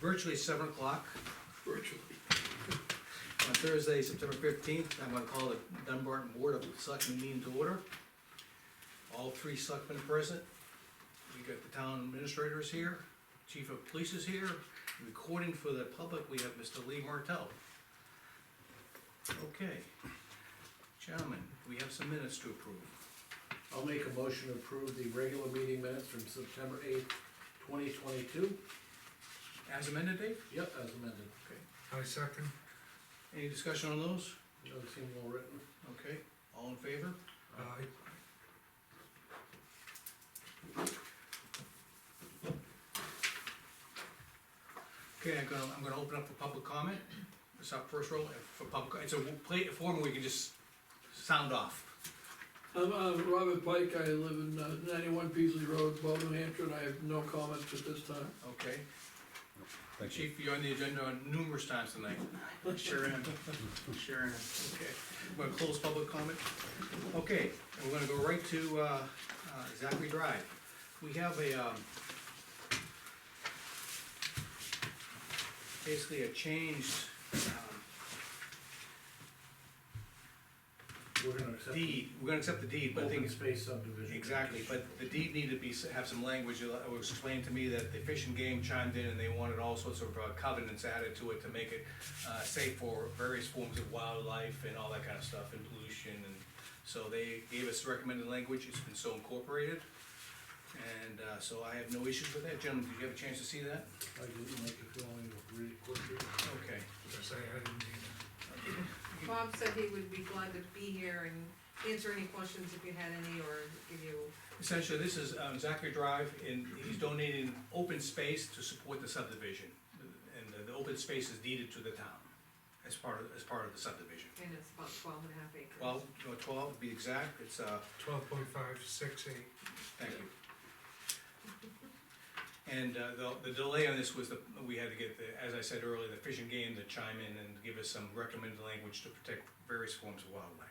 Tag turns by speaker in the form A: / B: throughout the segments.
A: virtually seven o'clock
B: virtually.
A: on Thursday, September fifteenth. I'm gonna call the Dunbarton Board of Selectmen meeting to order. All three selectmen present. We got the town administrators here, chief of police is here. Recording for the public, we have Mr. Lee Martell. Okay. Gentlemen, we have some minutes to approve.
C: I'll make a motion to approve the regular meeting minutes from September eighth, twenty twenty-two.
A: As amended, Dave?
C: Yep, as amended.
A: Okay.
B: I second.
A: Any discussion on those?
C: Doesn't seem well written.
A: Okay, all in favor?
B: Aye.
A: Okay, I'm gonna, I'm gonna open up for public comment. It's our first roll for public, it's a plate, form where you can just sound off.
D: I'm, uh Robert Pike, I live in uh, ninety-one Peasley Road, Bolton, New Hampshire, and I have no comments at this time.
A: Okay. Chief, you're on the agenda numerous times tonight. Sure am, sure am. Okay, we're gonna close public comment. Okay, and we're gonna go right to, uh, uh, Zachary Drive. We have a, um, basically a changed, um,
C: We're gonna accept.
A: deed, we're gonna accept the deed, but I think
C: Open
A: it's
C: space subdivision.
A: Exactly, but the deed needed to be, have some language, it was explained to me that the Fish and Game chimed in and they wanted all sorts of uh, covenants added to it to make it, uh, safe for various forms of wildlife and all that kind of stuff, and pollution, and so they gave us recommended language, it's been so incorporated. And, uh, so I have no issues with that, gentlemen, did you have a chance to see that?
C: I didn't make a feeling of really quickly.
A: Okay.
B: Yes, I had indeed.
E: Bob said he would be glad to be here and answer any questions if you had any, or give you,
A: Essentially, this is um, Zachary Drive, and he's donating open space to support the subdivision. And the- the open space is deeded to the town as part of, as part of the subdivision.
E: and it's about twelve and a half acres.
A: Twelve, no, twelve to be exact, it's, uh,
B: Twelve point five, six, eight.
A: thank you. And uh, the, the delay on this was the, we had to get, the as I said earlier, the fishing game to chime in and give us some recommended language to protect various forms of wildlife.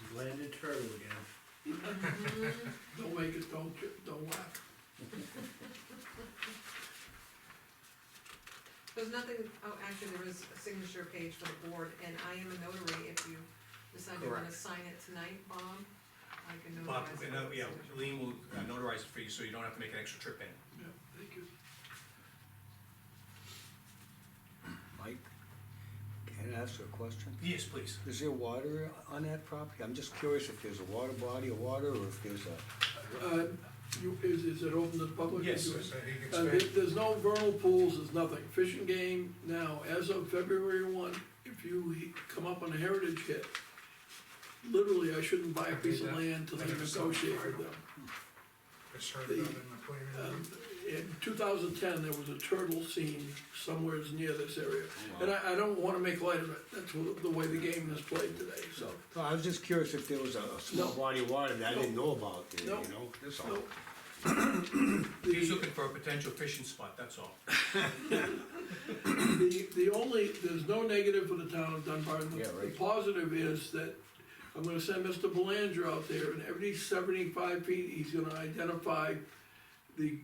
C: You Landed turtle again.
D: Don't make it, don't, ju- don't laugh.
E: There's nothing, oh, actually, there is a signature page for the board, and I am a notary, if you decide you wanna
A: Correct.
E: sign it tonight, Bob, I can
A: Bob,
E: notarize.
A: and,
E: it.
A: uh, yeah, Lean will uh, notarize it for you, so you don't have to make an extra trip in.
D: Yeah, thank you.
F: Mike, can I ask you a question?
A: Yes, please.
F: Is there water on that property? I'm just curious if there's a water body of water or if there's a,
D: Uh, you, is, is it open to the public?
A: Yes,
D: You-
B: So he can
D: Uh, there-
B: spend,
D: there's no vernal pools, there's nothing. Fish and game, now, as of February one, if you he- come up on a heritage hit, literally, I shouldn't buy a piece of land till I negotiate with them.
B: it's heard of in the plan.
D: Um, In two thousand ten, there was a turtle scene somewhere near this area, and I, I don't wanna make light of it, that's wh- the way the game is played today, so.
F: no, I was just curious if there was a small
D: No.
F: body of water that I didn't know about there,
D: No.
F: you know? That's all.
D: no.
A: He's
D: The,
A: looking for a potential fishing spot, that's all.
D: the, the only, there's no negative for the town of Dunbarton.
F: Yeah, right.
D: The positive is that I'm gonna send Mr. Belanger out there, and every seventy-five feet, he's gonna identify the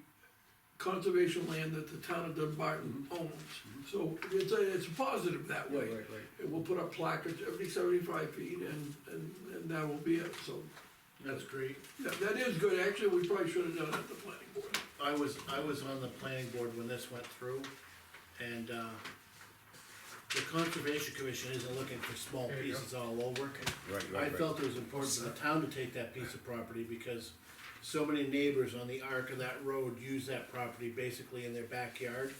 D: conservation land that the town of Dunbarton owns. So it's a, it's a positive that
F: Mm-hmm. Yeah,
D: way.
F: right, right.
D: And we'll put up placards every seventy-five feet and, and, and that will be it, so.
C: That's great.
D: Yeah, that is good, actually, we probably should have done it at the planning board.
C: I was, I was on the planning board when this went through, and, uh, the conservation commission isn't looking for small
B: There you go.
C: pieces all over.
F: Right,
C: I
F: right, right.
C: felt it was important for the town to take that piece of property because so many neighbors on the arc of that road use that property basically in their backyard.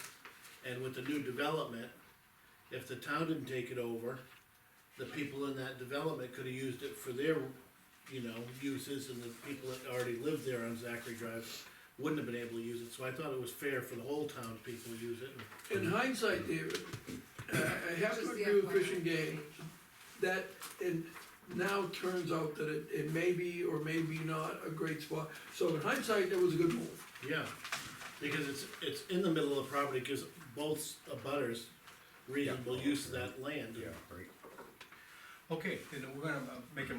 C: And with the new development, if the town didn't take it over, the people in that development could have used it for their, you know, uses and the people that already lived there on Zachary Drive wouldn't have been able to use it, so I thought it was fair for the whole town people to use it.
F: Mm-hmm.
D: In hindsight, David, I I have
E: Just
D: to
E: the
D: agree with
E: FYI
D: Fish and Game,
E: page.
D: that it now turns out that it, it may be or may be not a great spot. So in hindsight, that was a good move.
C: Yeah, because it's, it's in the middle of the property, gives both abutters reasonable use of that land.
F: Yeah, right.
A: Okay, then we're gonna uh, make a